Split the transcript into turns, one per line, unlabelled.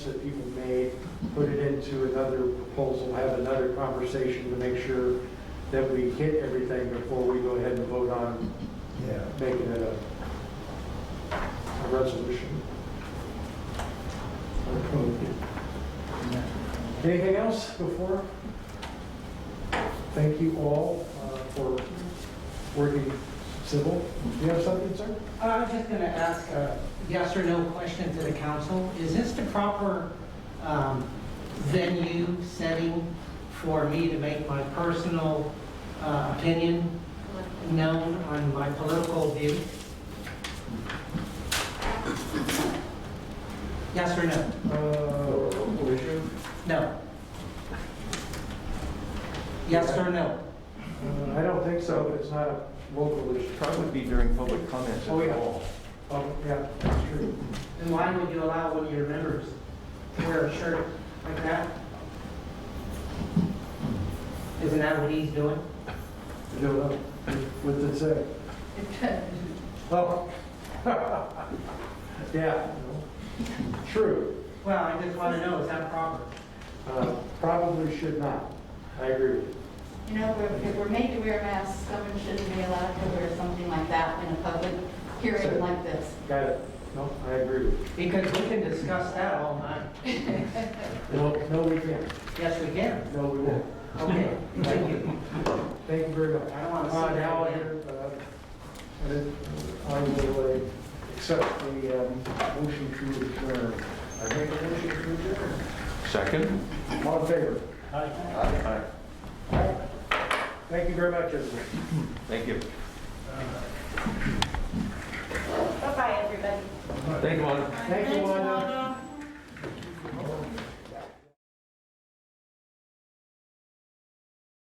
that people made, put it into another proposal, have another conversation to make sure that we hit everything before we go ahead and vote on
Yeah,
making it a, a resolution. Or code. Anything else before? Thank you all uh, for working civil. Do you have something, sir?
I was Uh, just going to ask a yes or no question to the council. Is this the proper um, venue setting for me to make my personal uh, opinion known on my political view? Yes or no?
Uh,
No. Yes or no?
uh, I don't think so, it's not a local issue.
probably be during public comments
Oh,
at
yeah.
all.
Oh, yeah, that's true.
Then why would you allow one of your members to wear a shirt like that? Isn't that what he's doing?
I don't know. uh, What's it say? Oh. Yeah. no. True.
Well, I just want to know, is that proper?
Uh, Probably should not. I agree with you.
You know, we're- if we're made to wear masks, someone shouldn't be allowed to wear something like that in a public hearing like this.
Got it. No, I agree with you.
Because we can discuss that all night.
No, no, we can't.
Yes, we can.
No, we won't.
Okay, thank you.
Thank you very much.
I don't want to
Uh, Now,
sit down
I
again.
uh, I will uh, accept the um, motion to adjourn. I make a motion to adjourn.
Second?
All in favor?
Aye.
Thank you very much, everyone.
Thank you.
Bye-bye, everybody.
Thank you, Lon.
Thank you, Wanda.